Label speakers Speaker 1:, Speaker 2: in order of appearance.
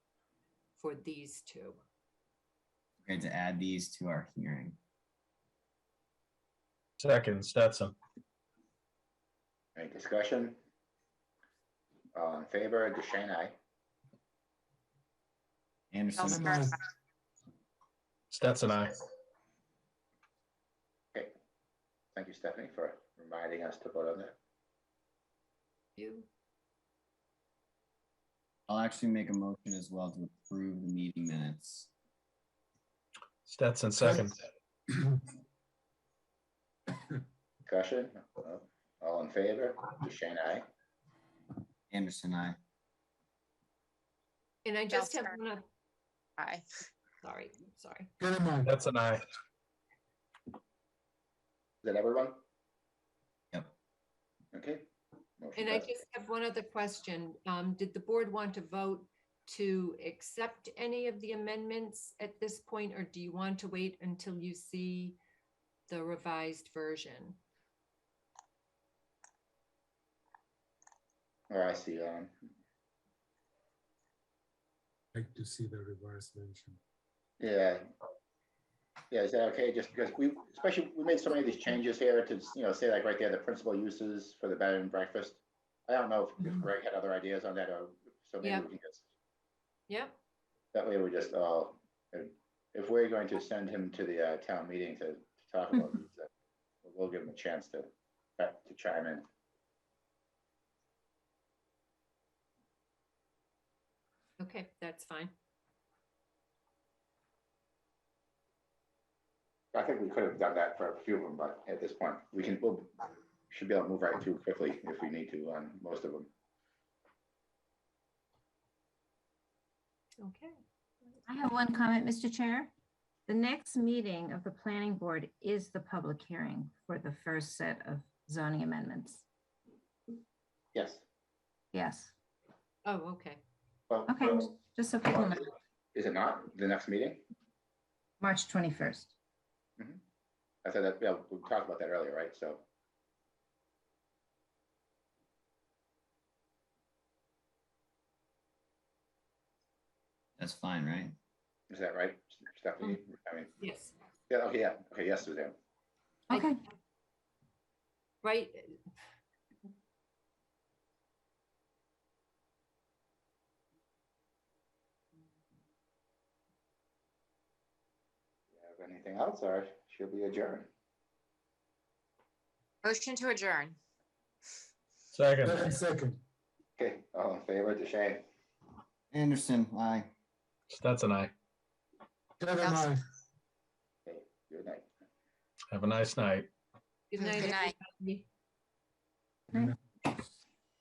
Speaker 1: for these two.
Speaker 2: Okay, to add these to our hearing.
Speaker 3: Second, Stetson.
Speaker 4: Any discussion? All in favor, Deshaun, aye.
Speaker 2: Anderson,
Speaker 1: Elsner,
Speaker 3: Stetson, I.
Speaker 4: Okay. Thank you, Stephanie, for reminding us to vote on that.
Speaker 1: you.
Speaker 2: I'll actually make a motion as well to approve the meeting minutes.
Speaker 3: Stetson, second.
Speaker 4: Discussion? No? All in favor, Deshaun, aye.
Speaker 2: Anderson, I.
Speaker 1: And I just have
Speaker 5: Elsner.
Speaker 1: one, oth-
Speaker 5: Aye.
Speaker 1: sorry, sorry.
Speaker 6: Goodman,
Speaker 3: Stetson, I.
Speaker 4: Is that everyone?
Speaker 2: Yep.
Speaker 4: Okay. Motion
Speaker 1: And I
Speaker 4: passed.
Speaker 1: just have one other question. Um, did the board want to vote to accept any of the amendments at this point, or do you want to wait until you see the revised version?
Speaker 4: Oh, I see, um,
Speaker 6: like to see the reverse mention.
Speaker 4: yeah. Yeah, is that okay? Just because we, especially, we made so many of these changes here to, you know, say like right there, the principal uses for the bed and breakfast. I don't know if- if
Speaker 1: Mhm.
Speaker 4: Greg had other ideas on that or so maybe
Speaker 1: Yeah.
Speaker 4: we can just
Speaker 1: Yep,
Speaker 4: That way we're just all, if we're going to send him to the uh, town meeting to to talk about these, uh, we'll give him a chance to, uh, to chime in.
Speaker 1: okay, that's fine.
Speaker 4: I think we could have done that for a few of them, but at this point, we can, we'll, should be able to move right through quickly if we need to on most of them.
Speaker 1: Okay.
Speaker 7: I have one comment, Mr. Chair. The next meeting of the planning board is the public hearing for the first set of zoning amendments.
Speaker 4: Yes.
Speaker 7: Yes,
Speaker 1: Oh, okay.
Speaker 4: Well,
Speaker 7: okay,
Speaker 4: well,
Speaker 7: just so people know,
Speaker 4: Is it not the next meeting?
Speaker 7: March 21st.
Speaker 4: I thought that, yeah, we talked about that earlier, right? So,
Speaker 2: That's fine, right?
Speaker 4: is that right, Stephanie? I mean,
Speaker 1: Yes,
Speaker 4: yeah, okay, yeah, okay, yes, Suzanne.
Speaker 1: I-
Speaker 7: Okay,
Speaker 1: right. uh,
Speaker 4: Have Anything else or she'll be adjourned?
Speaker 5: Motion to adjourn.
Speaker 3: Second,
Speaker 6: Second, Second,
Speaker 4: Okay, all in favor, Deshaun?
Speaker 2: Anderson, I.
Speaker 3: Stetson, I.
Speaker 6: Goodman,
Speaker 4: Okay, good night.
Speaker 3: Have a nice night.
Speaker 1: Good
Speaker 5: Good
Speaker 1: night,
Speaker 5: night.
Speaker 1: everybody.